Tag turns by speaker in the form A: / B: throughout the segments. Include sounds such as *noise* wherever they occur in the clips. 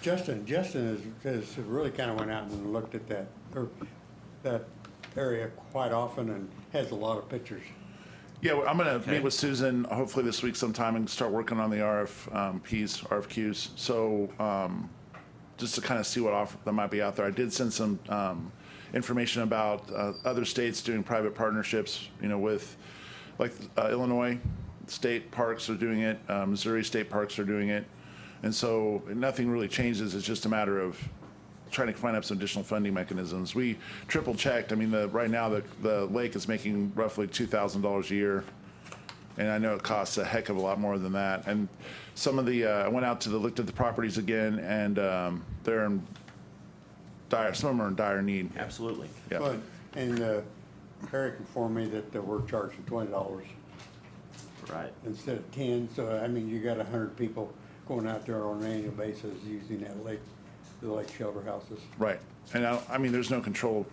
A: Justin, Justin has, has really kind of went out and looked at that, or that area quite often and has a lot of pictures.
B: Yeah, well, I'm gonna
C: Okay.
B: meet with Susan hopefully this week sometime and start working on the um, RFPs, RFQs. So um, just to kind of see what offer that might be out there. I did send some um, information about uh, other states doing private partnerships. You know, with like uh, Illinois state parks are doing it, uh, Missouri state parks are doing it, and so nothing really changes. It's just a matter of trying to find up some additional funding mechanisms. We triple checked. I mean, the, right now, the, the lake is making roughly two thousand dollars a year. And I know it costs a heck of a lot more than that. And some of the, uh, I went out to the, looked at the properties again and, um, they're in dire, some of them are in dire need.
C: Absolutely.
B: Yeah.
A: But, and, uh, Eric informed me that they were charging twenty dollars
C: Right.
A: instead of ten, so I mean, you got a hundred people going out there on an annual basis using that lake, the lake shelter houses.
B: Right. And I, I mean, there's no control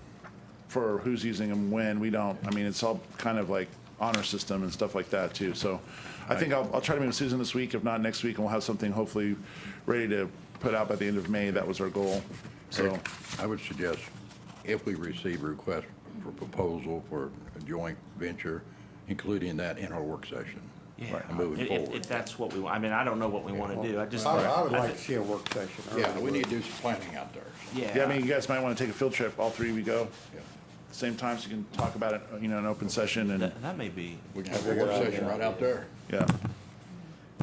B: for who's using them when. We don't, I mean, it's all kind of like honor system and stuff like that too. So I think I'll, I'll try to meet with Susan this week, if not next week, and we'll have something hopefully ready to put out by the end of May. That was our goal. So,
D: I would suggest if we receive a request for proposal for a joint venture, including that in our work session. and Moving
C: If- if-
D: forward.
C: If that's what we, want. I mean, I don't know what we want to do. I just.
A: I, I would
C: I
A: like
C: thi-
A: to see a work session. I
D: Yeah,
A: really
D: we
A: would.
D: need to do some planning out there.
B: yeah, I mean, you guys might want to take a field trip, all three we go.
D: Yeah.
B: Same time, so you can talk about it, you know, in open session and,
C: That, that may be,
D: We can have a work session right out there.
B: yeah.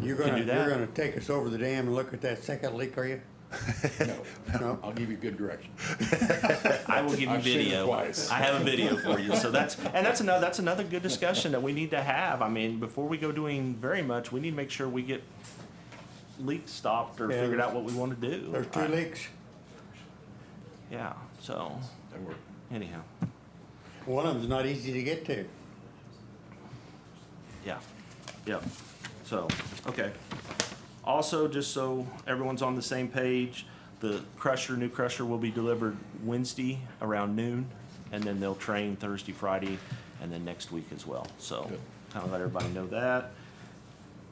A: You're
C: Can
A: gonna,
C: do
A: you're
C: that.
A: gonna take us over the dam and look at that second leak, are you?
D: *laughs* No,
A: No.
D: I'll give you good direction.
C: I will give you
D: I've seen it
C: video.
D: twice.
C: I have a video for you. So that's, and that's another, that's another good discussion that we need to have. I mean, before we go doing very much, we need to make sure we get leaks stopped or
A: Yeah.
C: figured out what we want to do.
A: There's two
C: I-
A: leaks.
C: Yeah, so
D: That work.
C: anyhow,
A: One of them's not easy to get to.
C: yeah, yep. So, okay. Also, just so everyone's on the same page, the crusher, new crusher will be delivered Wednesday around noon, and then they'll train Thursday, Friday, and then next week as well. So,
D: Good.
C: kind of let everybody know that.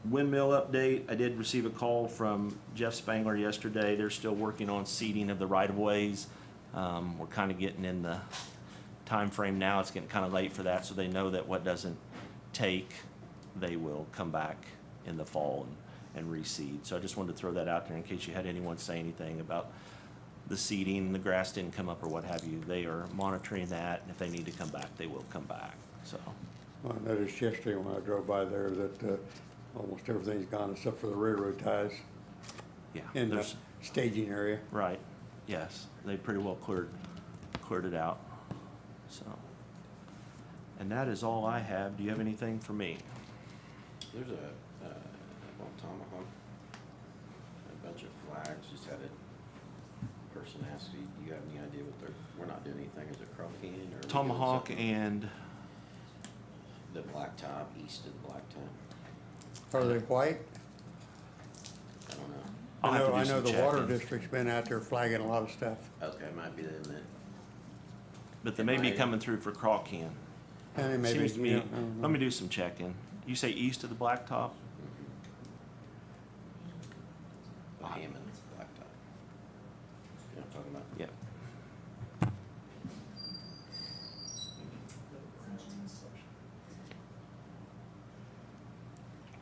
C: Windmill update, I did receive a call from Jeff Spangler yesterday. They're still working on seeding of the right-of-ways. Um, we're kind of getting in the time frame now. It's getting kind of late for that, so they know that what doesn't take, they will come back in the fall and, and reseed. So I just wanted to throw that out there in case you had anyone say anything about the seeding, the grass didn't come up or what have you. They are monitoring that, and if they need to come back, they will come back, so.
A: I noticed yesterday when I drove by there that uh, almost everything's gone except for the railroad ties
C: Yeah.
A: in the
C: there's-
A: staging area.
C: Right, yes, they pretty well cleared, cleared it out, so. And that is all I have, do you have anything for me?
E: There's a, uh, on Tomahawk, a bunch of flags, just had a person ask, do you have any idea what they're, we're not doing anything, is it Chrome Canyon or? are we doing
C: Tomahawk
E: something?
C: and,
E: The blacktop, east of the blacktop,
A: Are they white?
E: I don't know,
C: I'll
A: I
C: have
A: know,
C: to
A: I
C: do
A: know
C: some
A: the water
C: checking.
A: district's been out there flagging a lot of stuff.
E: okay, it might be them that,
C: But they may be
E: Am I-
C: coming through for Crawcan.
A: And it may be,
C: Seems to
A: you
C: me,
A: know, I don't
C: let
A: know.
C: me do some checking. You say east of the blacktop?
E: the Hammond blacktop. You know what I'm talking about?
C: Yeah.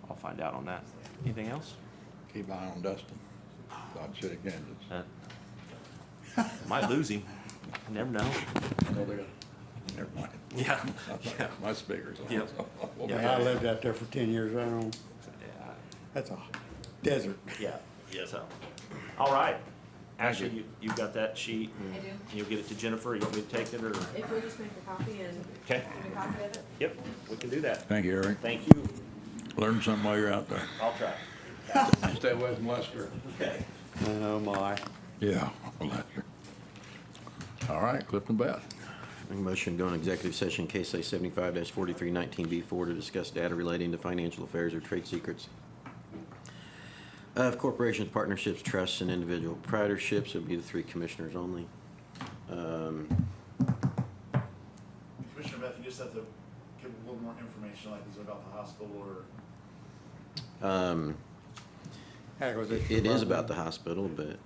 C: I'll find out on that. Anything else?
D: Keep an eye on Dustin, Dodge City, Kansas.
C: Uh, Might lose him. You Never know.
D: No, they got- Never mind. *laughs*
C: Yeah.
D: My speakers. on,
C: Yep.
D: so- *laughs*
A: Yeah, I lived out there for ten years, I don't,
C: Yeah.
A: that's a desert.
C: Yeah, yeah, so, all right. Ashley,
D: you.
C: you, you've got that sheet,
F: I
C: and
F: do.
C: you'll get it to Jennifer, you want me to take it, or?
F: If we just make a copy and.
C: Okay.
F: Make a copy of it?
C: Yep, we can do that.
D: Thank you, Eric.
C: Thank you,
D: Learn something while you're out there.
C: I'll try.
D: Stay away from Lester.
C: Okay.
A: Oh, my.
D: Yeah, Lester. All right, Clifton Bath.
E: Make a motion, go in executive session, case A seventy-five forty-three nineteen B four to discuss data relating to financial affairs or trade secrets of corporations, partnerships, trusts, and individual proprietorships. It would be the three commissioners only. Um,
G: Commissioner Beth, you just have to give a little more information, like is it about the hospital or?
E: um,
A: Acquisition
E: It is
A: department.
E: about the hospital, but